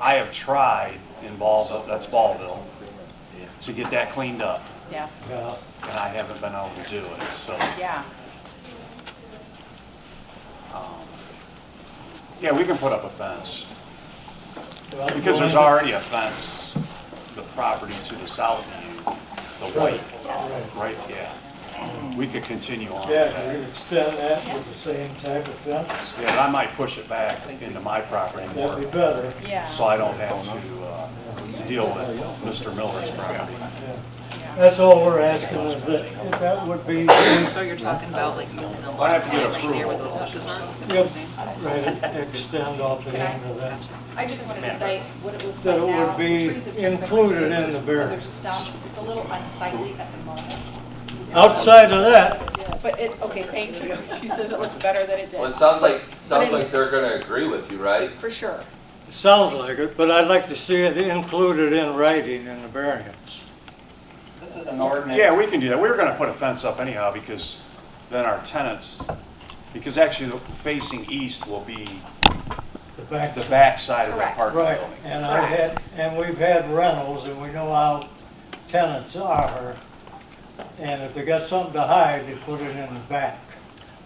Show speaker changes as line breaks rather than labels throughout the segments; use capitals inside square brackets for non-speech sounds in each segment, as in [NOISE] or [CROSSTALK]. I have tried in Ballville, that's Ballville, to get that cleaned up,
Yes,
and I haven't been able to do it, so.
yeah.
um, Yeah, we can put up a fence, because there's already a fence, the property to the south of you, the
Right,
white,
right.
right, yeah. We could continue on with that.
Yeah, you extend that with the same type of fence,
Yeah, and I might push it back into my property more,
that'd be better.
Yeah.
so I don't have to uh, deal with Mr. Miller's property.
Yeah. That's all we're asking is that, that would be,
So you're talking about like something along
I'd have to get
that lane there with those bushes on?
yep, right, extend off the end of that.
I just wanted to say what it looks
That
like
it would
now.
be
The trees have just been
included in the
removed,
bare-
So there's stumps, it's a little unsightly at the moment.
Outside of that,
But it, okay, thank you. She says it looks better than it
Well, it
did,
sounds like, sounds
But it-
like they're gonna agree with you, right?
for sure.
it sounds like it, but I'd like to see it included in writing in the variance.
This is an ordinance.
Yeah, we can do that. We were gonna put a fence up anyhow, because then our tenants, because actually facing east will be
The back,
the back side of the
Correct.
apartment
right,
building.
and I had, and we've had rentals and we know how tenants are. And if they got something to hide, they put it in the back.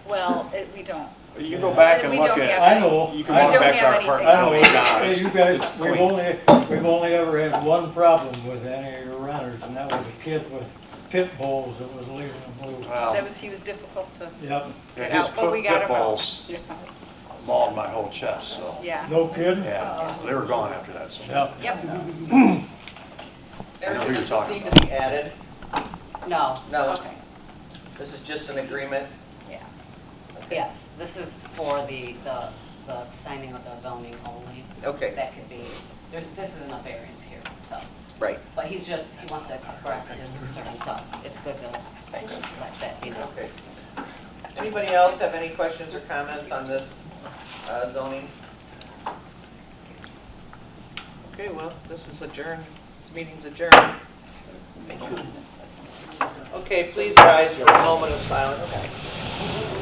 Well, [LAUGHS] it- we don't.
You can go back
But
and
we
look
don't have-
at,
I know.
you can
I
walk
know.
back to our
anything.
apartment.
I don't
building now.
know, you guys,
It's
we've
clean.
only, we've only ever had one problem with any of your renters, and that was a kid with pit bulls that was leaving the blue.
That
Well,
was, he was difficult to
Yep,
yeah,
get
his
out, but we
pit
got
pit
him out.
bulls mauled my whole chest, so,
[LAUGHS] Yeah,
no kidding?
yeah, they were gone after that, so.
Yep.
yep.
I know who you're talking
Does this Need to be added?
No,
No,
Okay,
this is just an agreement.
yeah,
yes, this is for the, the, the signing of the zoning only.
Okay,
That could be, there's, this isn't a variance here, so,
right.
but he's just, he wants to express his concern, so it's good to let that be known.
Okay. Anybody else have any questions or comments on this uh, zoning? Okay, well, this is adjourned, this meeting's adjourned. Okay, please rise for a moment of silence.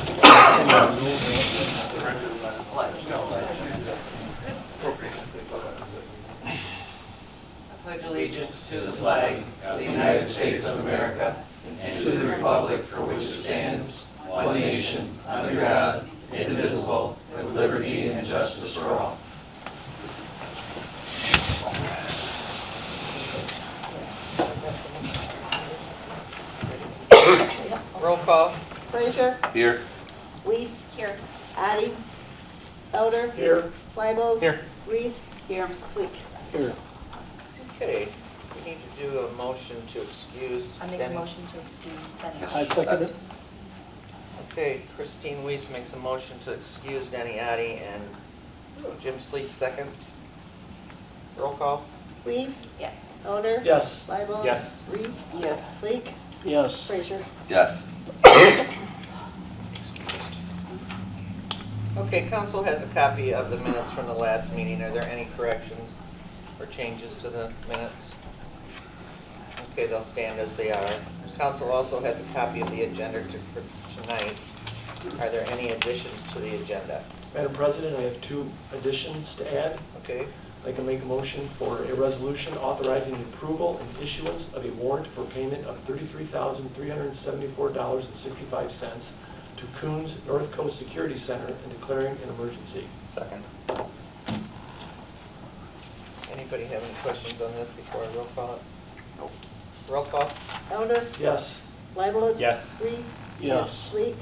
I pledge allegiance to the flag of the United States of America and to the republic for which it stands, one nation, under God, indivisible, with liberty and justice for all. Roll call.
Frazier,
Here.
Weiss. Here. Addie. Elder. Here. Libel. Here. Reese. Here. Sleek.
Okay, we need to do a motion to excuse.
I make a motion to excuse Benny.
I second it.
Okay, Christine Weiss makes a motion to excuse Danny Addy and Jim Sleek seconds. Roll call.
Weiss.
Yes.
Elder.
Yes.
Libel.
Yes.
Reese.
Yes.
Sleek.
Yes.
Frazier.
Yes.
Okay, council has a copy of the minutes from the last meeting. Are there any corrections or changes to the minutes? Okay, they'll stand as they are. Council also has a copy of the agenda to- for tonight. Are there any additions to the agenda?
Madam President, I have two additions to add.
Okay,
I can make a motion for a resolution authorizing the approval and issuance of a warrant for payment of $33,374.65 to Coons North Coast Security Center and declaring an emergency.
second. Anybody have any questions on this before I roll call it? Roll call?
Elder.
Yes?
Libel.
Yes.
Reese.
Yes.
Sleek.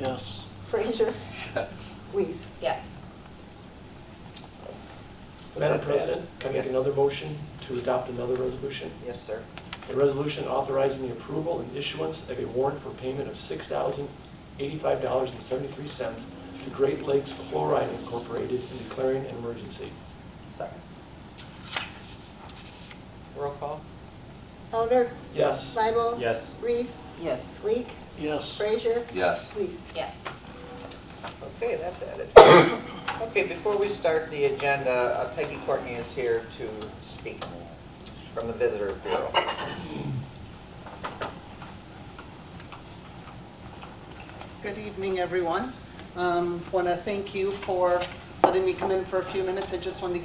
Yes.
Frazier.
Yes.
Weiss.
Yes,
Madam President, can I make
Yes.
another motion to adopt another resolution?
Yes, sir.
A resolution authorizing the approval and issuance of a warrant for payment of $6,085.73 to Great Lakes Chloride Incorporated and declaring an emergency.
Second. Roll call?
Elder.
Yes.
Libel.
Yes.
Reese.
yes,
Sleek.
Yes.
Frazier.
Yes.
Weiss.
yes.
Okay, that's added. [COUGHS] Okay, before we start the agenda, uh, Peggy Courtney is here to speak from the Visitor Bureau.
Good evening, Um, everyone. Want to thank you for letting me come in for a few minutes. I just wanted to